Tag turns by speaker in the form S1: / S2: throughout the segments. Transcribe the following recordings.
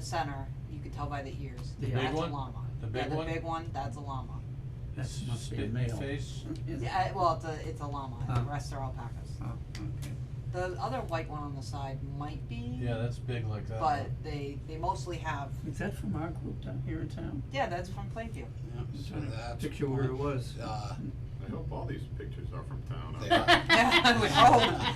S1: center, you could tell by the ears.
S2: The big
S1: That's
S2: one?
S1: a llama.
S2: The big one?
S1: Yeah, the big one, that's a llama.
S2: That
S3: That's
S2: must be a
S3: spit in
S2: male.
S3: face.
S1: Yeah, I- well, it's a, it's a llama, and the
S3: Oh.
S1: rest are alpacas.
S3: Oh, okay.
S1: The other white one on the side might be,
S2: Yeah, that's big uh, like that.
S1: but they, they mostly have,
S3: Is that from our group down here in town?
S1: yeah, that's from Plainview.
S3: Yeah,
S4: So
S3: trying to
S4: that's
S3: Picture where it was.
S4: Uh,
S5: I hope all these pictures are from town.
S4: They
S5: huh?
S4: are.
S1: Yeah, we hope.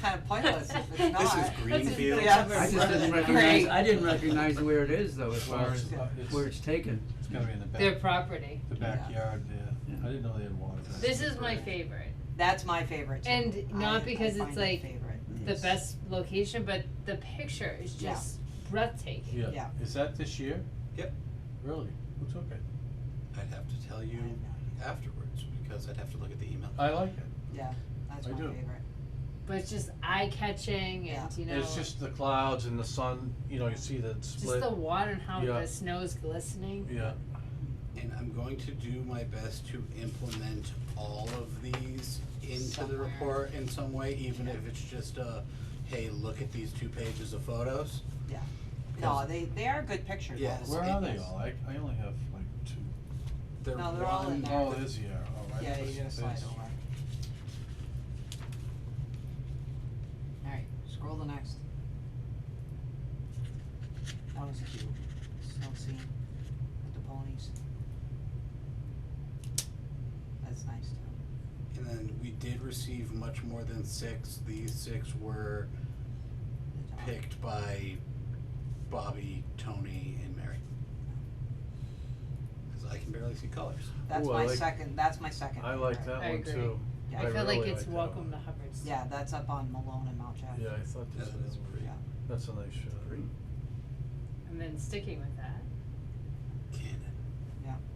S1: Kind of pointless if it's not.
S4: This is Greenfield.
S1: Yeah.
S3: I just didn't
S1: Right.
S3: recognize, I didn't recognize where it is though, as
S2: Where
S3: far as
S2: it's- it's-
S3: where it's taken.
S2: It's gonna be in the
S6: Their
S2: back,
S6: property.
S2: the backyard, yeah.
S3: Yeah.
S2: I didn't know they had water. back
S6: This
S2: there.
S6: is my favorite.
S1: That's my favorite too.
S6: And
S1: I-
S6: not
S1: I
S6: because it's
S1: find it
S6: like
S1: favorite.
S6: The best location, but the picture is
S1: Yeah.
S6: just breathtaking.
S2: Yeah,
S1: Yeah.
S2: is that this year?
S4: Yep.
S2: Really? Who took it?
S4: I'd have to tell you afterwards because I'd have to look at the email.
S2: I like it.
S1: Yeah, that's
S2: I
S1: my
S2: do.
S1: favorite.
S6: But it's just eye catching
S1: Yeah.
S6: and you know
S2: It's just the clouds and the sun, you know, you see the
S6: just
S2: split.
S6: the water and how
S2: Yeah.
S6: the snow's glistening.
S2: Yeah,
S4: And I'm going to do my best to implement all of these into the
S1: Somewhere.
S4: report in some way, even if it's just a, hey, look at these two pages of photos.
S1: Yeah. No,
S4: Because
S1: they, they are good pictures.
S4: Yes.
S1: though.
S2: where are they
S4: Yes.
S2: all? I, I only have like two.
S4: they're
S1: No, they're all in
S4: one-
S1: there.
S2: Oh, it is the air, oh, right.
S1: Yeah, you
S2: this
S1: gotta slide
S2: is-
S1: over. Alright, scroll the next. That was cute, snow scene with the ponies. That's nice too.
S4: And then we did receive much more than six. These six were
S1: The dog.
S4: picked by Bobby, Tony, and Mary. Because I can barely see colors.
S1: That's
S2: Ooh, I
S1: my
S2: like-
S1: second, that's my second.
S2: I like
S1: favorite.
S2: that
S6: I
S2: one
S6: agree.
S2: too.
S1: Yeah.
S6: I, feel
S2: really
S6: like it's
S2: that one.
S6: welcome to Hubbard's.
S1: Yeah, that's up on Malone and Mount Jack.
S2: Yeah, I thought
S4: Yeah,
S2: this
S4: that
S2: was,
S4: is pretty.
S1: Yeah.
S2: that's a nice uh, shot.
S6: And then sticking with that.
S4: Cannon.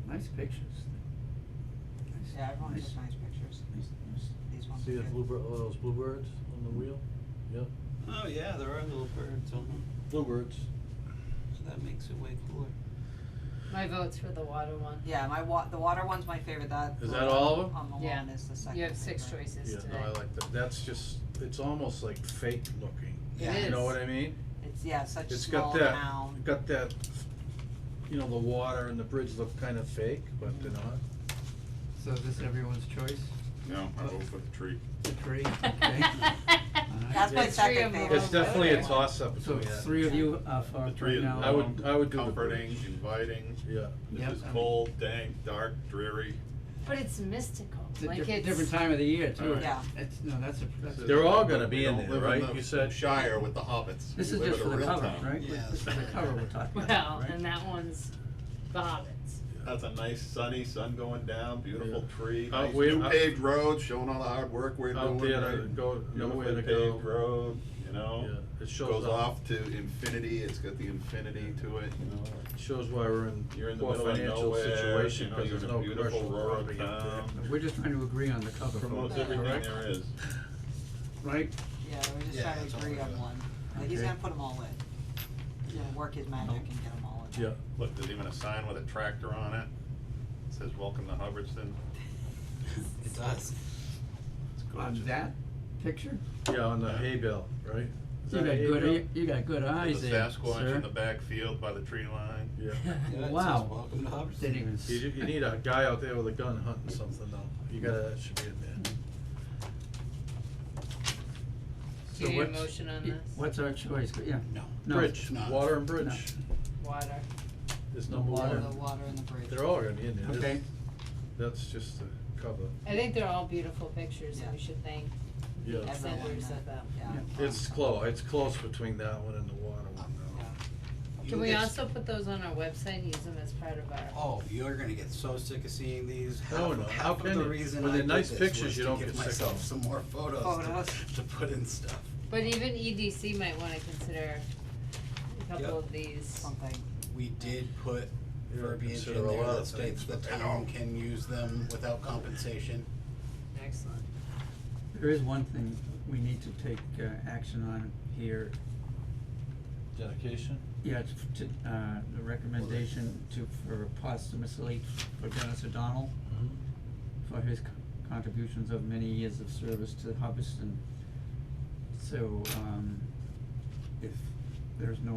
S3: Nice pictures. Nice-
S1: Yeah, everyone
S3: nice-
S1: took nice pictures,
S3: nice- nice.
S1: these ones.
S2: See
S1: are
S2: the
S1: good.
S2: bluebird, oh, those bluebirds on the wheel? Yep,
S4: Oh yeah, there are little birds on them,
S2: bluebirds.
S4: so that makes it way cooler.
S6: My vote's for the water one.
S1: Yeah, my wa- the water one's my favorite, that.
S2: Is that all of 'em?
S1: On
S6: Yeah.
S1: Malone is the second
S6: You have six
S1: favorite.
S6: choices
S2: Yeah,
S6: today.
S2: no, I like that. That's just, it's almost like fake looking.
S4: Yeah.
S2: You
S6: It
S2: know
S6: is.
S2: what I mean?
S1: It's, yeah, such
S2: It's
S1: small
S2: got that,
S1: town.
S2: got that, you know, the water and the bridge look kind of fake, but they're not.
S3: So is this everyone's choice?
S5: No, I vote for the tree.
S3: The three, okay?
S1: That's my
S2: Yeah.
S1: second
S6: Three of 'em.
S1: favorite.
S2: It's definitely a
S6: Oh, Okay.
S2: toss up
S3: So
S2: between that.
S3: three of you are for
S5: The
S3: it
S5: tree
S3: right
S5: is
S3: now.
S2: I would-
S5: warm,
S2: I would do the
S5: comforting,
S2: bridge.
S5: inviting.
S2: Yeah,
S3: Yep,
S5: This is
S3: I would-
S5: cold, dank, dark, dreary.
S6: But it's mystical.
S3: It's a
S6: like
S3: different,
S6: it's
S3: different time of the year too.
S5: Alright.
S1: Yeah.
S3: It's, no, that's a, that's a.
S2: They're all gonna be
S5: We
S2: in
S5: don't
S2: there,
S5: live
S2: right?
S5: the
S2: You said-
S5: Shire with the hobbits.
S3: This
S5: We
S3: is
S5: live
S3: just for
S5: in a
S3: the
S5: real
S3: cover,
S5: town.
S3: right?
S4: Yeah.
S3: This is the cover we're talking about,
S6: Well,
S3: right?
S6: and that one's the Hobbits.
S5: That's a nice sunny, sun going down, beautiful
S2: Yeah.
S5: tree,
S2: Out
S5: nice
S2: where-
S5: new
S2: out-
S5: paved road, showing all the hard work we're doing.
S2: Out there to
S5: right?
S2: go- nowhere to
S5: Beautifully
S2: go.
S5: paved road, you know?
S2: Yeah, it shows
S5: Goes
S2: up.
S5: off to infinity, it's got the infinity to it, you know?
S2: shows why we're in
S5: You're in the
S2: poor
S5: middle of
S2: financial
S5: nowhere,
S2: situation,
S5: you know,
S2: cause
S5: you're
S2: there's
S5: in a
S2: no
S5: beautiful
S2: commercial
S5: rural
S2: property up there.
S5: town.
S3: But We're just trying to agree on the cover
S5: Promotes
S3: photo,
S5: everything
S3: correct?
S5: there is.
S3: Right?
S1: Yeah, we're just
S4: Yeah,
S1: trying
S4: that's
S1: to
S4: all
S1: agree
S4: we're
S1: on
S4: doing.
S1: one. Like, he's
S3: Okay.
S1: gonna put them all in. He's gonna work his magic and get them all in.
S2: Yeah,
S5: Look, there's even a sign with a tractor on it. It says, welcome to Hubbardston.
S4: It does.
S5: It's
S3: On
S5: gorgeous.
S3: that picture?
S2: yeah, on the hay bale, right? Is
S3: You
S2: that
S3: got
S2: hay
S3: good,
S2: bale?
S3: you- you got good eyes
S5: There's a
S3: there,
S5: Sasquatch in the
S3: sir.
S5: backfield by the tree line.
S2: Yeah,
S4: Yeah, it says
S3: Wow.
S4: welcome to Hubbardston.
S3: Didn't even. s-
S2: you, ju- you need a guy out there with a gun hunting something though, you gotta, that should be in there.
S3: so
S6: Do you need a
S3: what's-
S6: motion on
S3: y-
S6: this?
S3: What's our choice? Yeah.
S4: No.
S3: No.
S2: Bridge,
S4: not.
S2: water and bridge
S6: Water.
S2: is
S3: No
S2: number
S3: water.
S2: one.
S1: The water and the bridge.
S2: They're all gonna be in there. This-
S3: Okay.
S2: That's just the cover.
S6: I think they're all beautiful pictures and we
S1: Yeah.
S6: should thank
S2: Yeah.
S6: the senders of them.
S1: Yeah.
S3: Yeah.
S2: It's close, it's close between that one and the water one
S1: Yeah.
S2: though.
S4: You
S6: Can we
S4: get-
S6: also put those on our website and use them as part of our?
S4: Oh, you're gonna get so sick of seeing these.
S2: No,
S4: Half-
S2: Oh, no, how
S4: Half of
S2: can
S4: the
S2: you?
S4: reason
S2: When
S4: I
S2: they're
S4: did
S2: nice
S4: this
S2: pictures,
S4: was
S2: you
S4: to
S2: don't
S4: give
S2: get sick of
S4: myself
S2: 'em.
S4: some more photos
S1: Photos.
S4: to, to put in stuff.
S6: But even EDC might wanna consider a
S4: Yep.
S6: couple of these.
S1: Something.
S4: We did put
S2: You don't
S4: verbiage
S2: consider
S4: in
S2: a
S4: there
S2: lot
S4: that
S2: of
S4: states
S2: things,
S4: the
S2: but-
S4: town can use them without compensation.
S6: Excellent.
S3: There is one thing we need to take uh, action on here.
S2: Dedication?
S3: Yeah, it's f- to, uh, the recommendation to, for posthumously for Dennis O'Donnell
S2: Mm-hmm.
S3: for his co- contributions of many years of service to Hubbardston. So, um, if there's no